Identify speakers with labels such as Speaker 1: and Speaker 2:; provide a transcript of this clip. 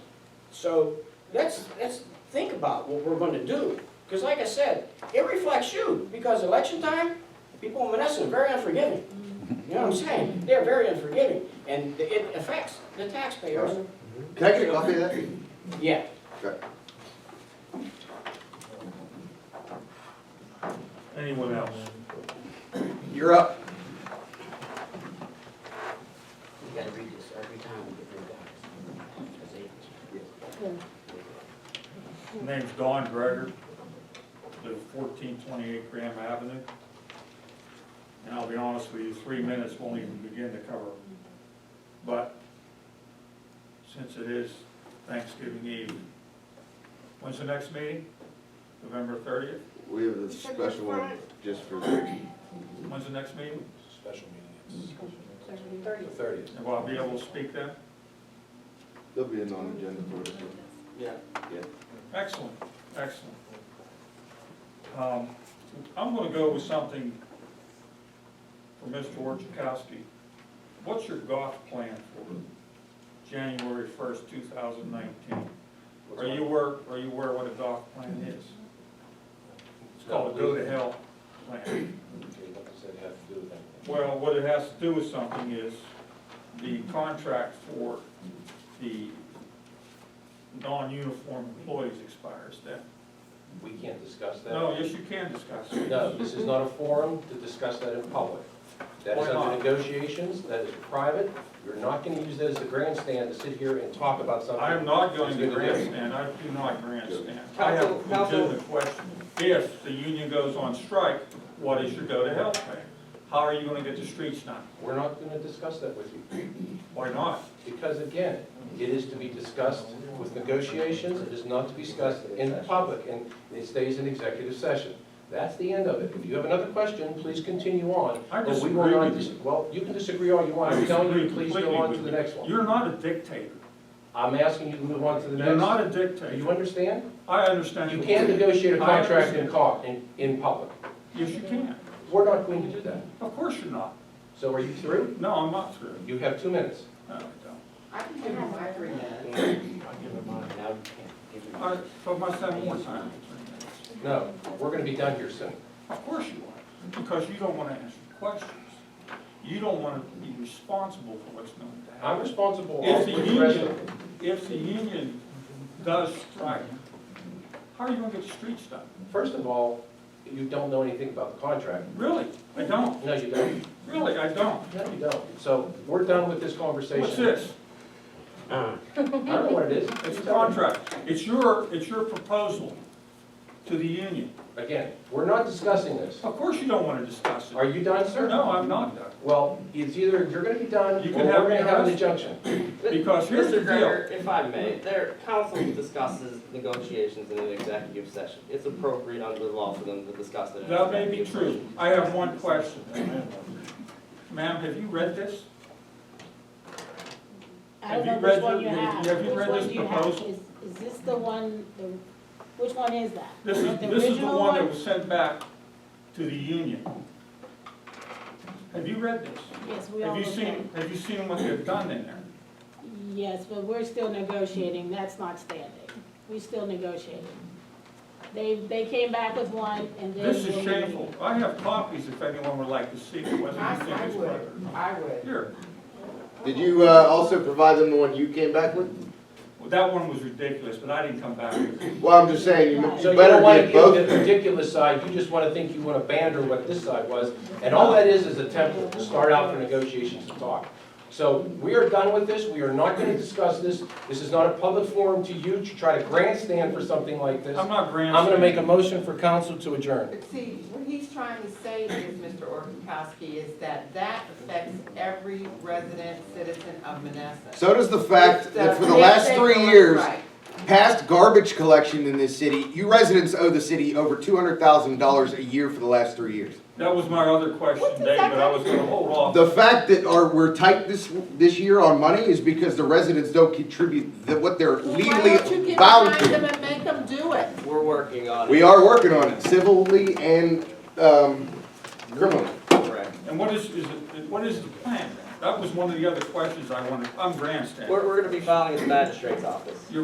Speaker 1: So let's, let's think about what we're gonna do. Because like I said, it reflects you, because election time, people in Menneson are very unforgiving. You know what I'm saying? They're very unforgiving, and it affects the taxpayers.
Speaker 2: Can I get a copy of that?
Speaker 1: Yeah.
Speaker 3: Anyone else?
Speaker 2: You're up.
Speaker 1: You gotta read this every time we get new guys.
Speaker 3: My Name's Don Greger, live fourteen twenty-eight Graham Avenue. And I'll be honest with you, three minutes won't even begin to cover. But since it is Thanksgiving Eve, when's the next meeting? November thirtieth?
Speaker 2: We have a special one just for Ricky.
Speaker 3: When's the next meeting?
Speaker 4: Special meeting,
Speaker 5: Thirty.
Speaker 4: it's the thirtieth.
Speaker 3: And will I be able to speak then?
Speaker 2: There'll be a non-agenda for this one.
Speaker 1: Yeah.
Speaker 3: Excellent, excellent. Um, I'm gonna go with something for Mr. Orchakowski. What's your golf plan for January first, two thousand nineteen? Are you aware, are you aware what a golf plan is? It's called a go to hell plan.
Speaker 4: Okay, what does that have to do with anything?
Speaker 3: Well, what it has to do with something is the contract for the non-uniform employees expires then.
Speaker 4: We can't discuss that.
Speaker 3: No, yes, you can discuss it.
Speaker 4: No, this is not a forum to discuss that in public. That is
Speaker 3: Why not?
Speaker 4: under negotiations, that is private. You're not gonna use that as a grandstand to sit here and talk about something.
Speaker 3: I am not going to
Speaker 4: It's gonna be-
Speaker 3: grandstand, I do not grandstand. I have a
Speaker 1: Counsel, counsel.
Speaker 3: legitimate question. If the union goes on strike, what is your go-to-hell plan? How are you gonna get the streets done?
Speaker 4: We're not gonna discuss that with you.
Speaker 3: Why not?
Speaker 4: Because again, it is to be discussed with negotiations, it is not to be discussed in public, and it stays in executive session. That's the end of it. If you have another question, please continue on.
Speaker 3: I
Speaker 4: but we will
Speaker 3: disagree
Speaker 4: not
Speaker 3: with
Speaker 4: dis-
Speaker 3: you.
Speaker 4: Well, you can disagree all you want,
Speaker 3: I
Speaker 4: I'm telling you,
Speaker 3: disagree
Speaker 4: please go
Speaker 3: completely
Speaker 4: on
Speaker 3: with
Speaker 4: to the
Speaker 3: you.
Speaker 4: next one.
Speaker 3: You're not a dictator,
Speaker 4: I'm asking you to move on to the
Speaker 3: you're not
Speaker 4: next.
Speaker 3: a
Speaker 4: Do you
Speaker 3: dictator.
Speaker 4: understand?
Speaker 3: I understand.
Speaker 4: You can negotiate a
Speaker 3: I
Speaker 4: contract in
Speaker 3: understand.
Speaker 4: co- in, in public.
Speaker 3: Yes, you can,
Speaker 4: We're not going to do that.
Speaker 3: of course you're not.
Speaker 4: So are you through?
Speaker 3: No, I'm not through.
Speaker 4: You have two minutes.
Speaker 3: No, I don't.
Speaker 1: I can give him my three minutes. Now you can't give him
Speaker 3: I
Speaker 1: yours.
Speaker 3: told myself more time.
Speaker 4: No, we're gonna be done here soon.
Speaker 3: Of course you are, because you don't wanna answer questions. You don't wanna be responsible for what's going to happen.
Speaker 4: I'm responsible
Speaker 3: If
Speaker 4: for
Speaker 3: the
Speaker 4: the rest of
Speaker 3: union, if the union does strike, how are you gonna get the streets done?
Speaker 4: First of all, you don't know anything about the contract.
Speaker 3: Really, I don't,
Speaker 4: No, you don't.
Speaker 3: really, I don't.
Speaker 4: No, you don't. So we're done with this conversation.
Speaker 3: What's this?
Speaker 4: I don't know what it is.
Speaker 3: It's a
Speaker 4: You tell me.
Speaker 3: contract, it's your, it's your proposal to the union.
Speaker 4: Again, we're not discussing this.
Speaker 3: Of course you don't wanna discuss
Speaker 4: Are
Speaker 3: it.
Speaker 4: you done, sir?
Speaker 3: No, I'm not done,
Speaker 4: Well, it's either you're gonna be done, or
Speaker 3: You
Speaker 4: we're
Speaker 3: can have
Speaker 4: gonna
Speaker 3: your
Speaker 4: have an
Speaker 3: rest.
Speaker 4: injunction.
Speaker 3: because here's the
Speaker 6: Mr.
Speaker 3: deal.
Speaker 6: Greger, if I may, there, council discusses negotiations in an executive session. It's appropriate under the law for them to discuss it. in an
Speaker 3: That may be true,
Speaker 6: executive session.
Speaker 3: I have one question. Ma'am, have you read this?
Speaker 5: I
Speaker 3: Have
Speaker 5: don't
Speaker 3: you
Speaker 5: know
Speaker 3: read
Speaker 5: which one
Speaker 3: the-
Speaker 5: you have.
Speaker 3: have you
Speaker 5: Which
Speaker 3: read
Speaker 5: one
Speaker 3: this
Speaker 5: do you have?
Speaker 3: proposal?
Speaker 5: Is is this the one, the, which one is that?
Speaker 3: This is,
Speaker 5: The
Speaker 3: this is the
Speaker 5: original
Speaker 3: one that was sent back to the union. Have you read this?
Speaker 5: Yes, we all
Speaker 3: Have you
Speaker 5: looked at
Speaker 3: seen, have you seen what they've done in there?
Speaker 5: it. Yes, but we're still negotiating, that's not standing. We're still negotiating. They, they came back with one and they.
Speaker 3: This is
Speaker 5: will-
Speaker 3: shameful. I have copies if anyone would like to see whether
Speaker 1: I,
Speaker 3: you
Speaker 1: I
Speaker 3: think it's right or
Speaker 1: would,
Speaker 3: not.
Speaker 1: I would.
Speaker 3: Here,
Speaker 2: Did you uh, also provide them the one you came back with?
Speaker 3: well, that one was ridiculous, but I didn't come back with it.
Speaker 2: Well, I'm just saying, you
Speaker 5: So
Speaker 4: So
Speaker 2: you
Speaker 4: you don't wanna
Speaker 2: better
Speaker 4: give
Speaker 2: get both.
Speaker 4: the ridiculous side, you just wanna think you wanna banter what this side was. And all that is, is a template to start out for negotiations to talk. So we are done with this, we are not gonna discuss this. This is not a public forum to you to try to grandstand for something like this.
Speaker 3: I'm not grandstanding.
Speaker 4: I'm gonna make a motion for council to adjourn.
Speaker 7: But see, what he's trying to say is, Mr. Orchowski, is that that affects every resident citizen of Menneson.
Speaker 2: So does the fact that for the
Speaker 7: It's uh, a
Speaker 2: last
Speaker 7: mandate
Speaker 2: three
Speaker 7: going
Speaker 2: years,
Speaker 7: right.
Speaker 2: past garbage collection in this city, you residents owe the city over two hundred thousand dollars a year for the last three years.
Speaker 3: That was my other
Speaker 7: What
Speaker 3: question,
Speaker 7: does
Speaker 3: Dave,
Speaker 7: that
Speaker 3: but I was gonna hold off.
Speaker 2: The fact that our, we're tight this, this year on money is because the residents don't contribute the- what they're
Speaker 7: Well,
Speaker 2: legally
Speaker 7: Why
Speaker 2: bound
Speaker 7: don't you get behind them
Speaker 2: to.
Speaker 7: and make them do it?
Speaker 6: We're working on it.
Speaker 2: We are working on it civilly and, um, criminally.
Speaker 6: Correct.
Speaker 3: And what is, is it, what is the plan? That was one of the other questions I wanted, I'm grandstanding.
Speaker 6: We're, we're gonna be filing in the magistrate's office.